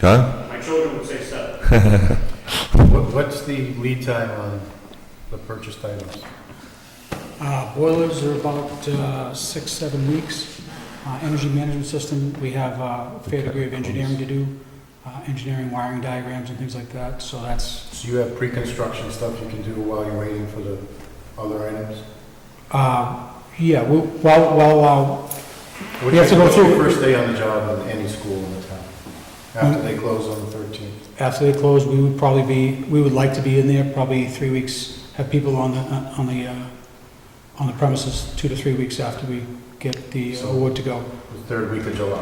John? My children would say seven. What- What's the lead time on the purchased items? Uh, Boilers are about uh, six, seven weeks. Uh, Energy management system, we have uh, a fair degree of engineering to do, uh, engineering wiring diagrams and things like that, so that's, So you have pre-construction stuff you can do while you're waiting for the other items? uh, yeah, we- well, well, uh, What- You have to go what's your through- First day on the job in any school in the town, after they close on the 13th. after they close, we would probably be, we would like to be in there probably three weeks, have people on the, on the, uh, on the premises two to three weeks after we get the So- award to go, The third week of July,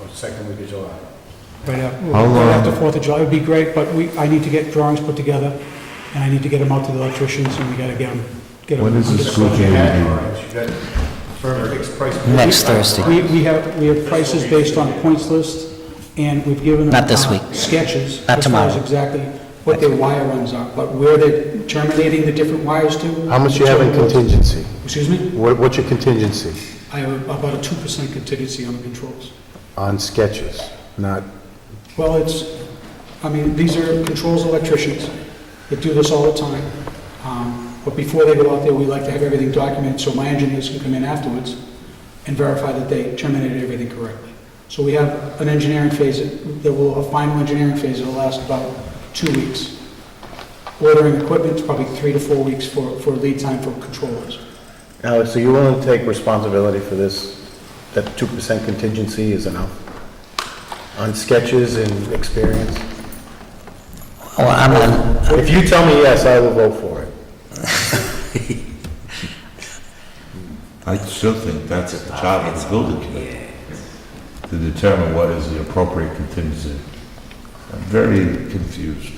or second week of July. right after, How right after long- Fourth of July. It'd be great, but we, I need to get drawings put together, and I need to get them out to the electricians, and we gotta get them, get them. When is the under school budget. year? You Yeah. had drawings, you got firm fixed price. Next Thursday. We, we have, we have prices based on the points list, and we've given them. Not this uh, week. Sketches. Not As tomorrow. far as exactly what their wire runs are, but where they're terminating the different wires to. How much you have in contingency? Excuse me? What, what's your contingency I have about a two percent contingency on the controls. on sketches? Not, Well, it's, I mean, these are controls electricians that do this all the time. Um, But before they go out there, we like to have everything documented, so my engineers can come in afterwards and verify that they terminated everything correctly. So we have an engineering phase, that that will, a final engineering phase that'll last about two weeks. Ordering equipment's probably three to four weeks for, for lead time for controllers. Alex, are you willing to take responsibility for this, that 2% contingency is enough? On sketches and experience? Well, I'm not, If you tell me yes, I will vote for it. I still think that's the job of the building committee, to determine what is the appropriate contingency. I'm very confused,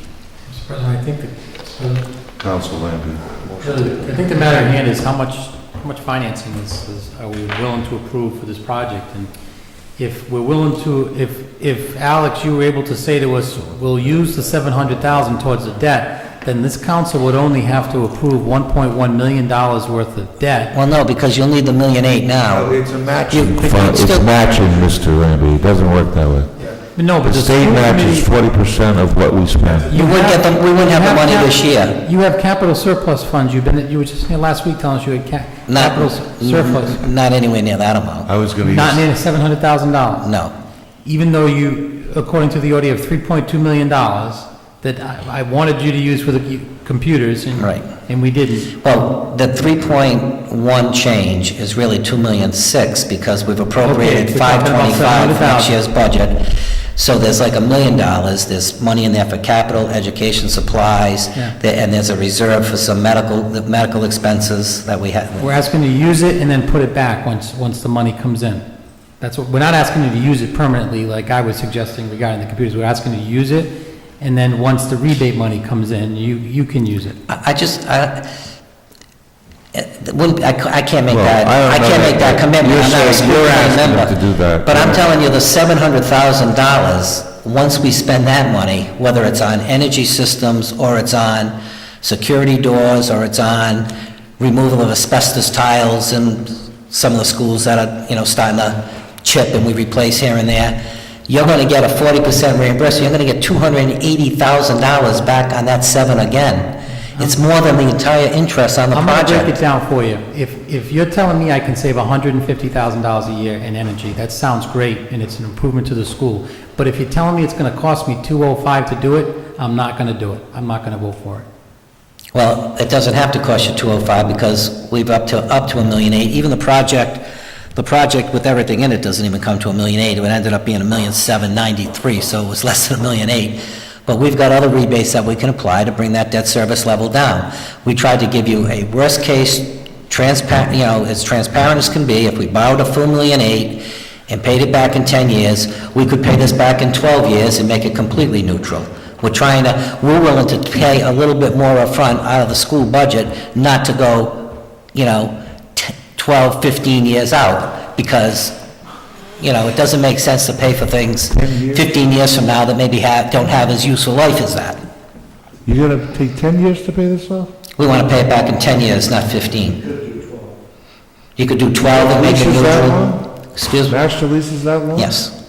Mr. President, I think, the- Council Lambie. the- I think the matter at hand is how much, how much financing is, is- are we willing to approve for this project? And if we're willing to, if, if Alex, you were able to say to us, we'll use the 700,000 towards the debt, then this council would only have to approve 1.1 million dollars worth of debt. well, no, because you'll need the million eight now. It's a You- matching. you can still- matching, Mr. Lambie, it doesn't work that way. No, but The the state school matches committee- forty percent of what we spend. You wouldn't get the, we wouldn't have the money this year. You have capital surplus funds, you've been, you were just here last week telling us you had ca- Not, capital surplus, not anywhere near that amount, I was gonna not use, near $700,000. no. even though you, according to the order, have $3.2 million that I I wanted you to use for the cu- computers, and... Right. And we didn't. Well, the 3.1 change is really 2 million 6, because we've appropriated Okay, we're talking about 525 for next 700,000. year's budget. So there's like a million dollars, there's money in there for capital, education, supplies, Yeah. there- and there's a reserve for some medical, the medical expenses that we have. We're asking to use it and then put it back once, once the money comes in. That's what, we're not asking you to use it permanently, like I was suggesting regarding the computers. We're asking you to use it, and then once the rebate money comes in, you, you can use it. I I just, I, it wouldn't, I ca- I can't make Well, that, I don't I know can't that- make that commitment, you're I'm not a saying school you're committee asking them member. to do that, But I'm right. telling you, the seven hundred thousand dollars, once we spend that money, whether it's on energy systems, or it's on security doors, or it's on removal of asbestos tiles in some of the schools that are, you know, starting to chip and we replace here and there, you're gonna get a forty percent reimbursement, you're gonna get two hundred and eighty thousand dollars back on that seven again. It's more than the entire interest on the I'm project. gonna break it down for you. If, if you're telling me I can save $150,000 a year in energy, that sounds great, and it's an improvement to the school. But if you're telling me it's gonna cost me 205 to do it, I'm not gonna do it. I'm not gonna vote for it. Well, it doesn't have to cost you 205 because we've up to, up to a million eight. Even the project, the project with everything in it doesn't even come to a million eight. It ended up being a million seven ninety-three, so it was less than a million eight. But we've got other rebates that we can apply to bring that debt service level down. We tried to give you a worst-case transparent, you know, as transparent as can be. If we borrowed a full million eight and paid it back in 10 years, we could pay this back in 12 years and make it completely neutral. We're trying to, we're willing to pay a little bit more upfront out of the school budget, not to go, you know, t- 12, 15 years out, because, you know, it doesn't make sense to pay for things 15 years from now that maybe have, don't have as useful life as that. you're gonna take ten years to pay this off? We want to pay it back in 10 years, not 15. You could do 12 and make it Leases that neutral. Excuse me? Master leases that long? Yes.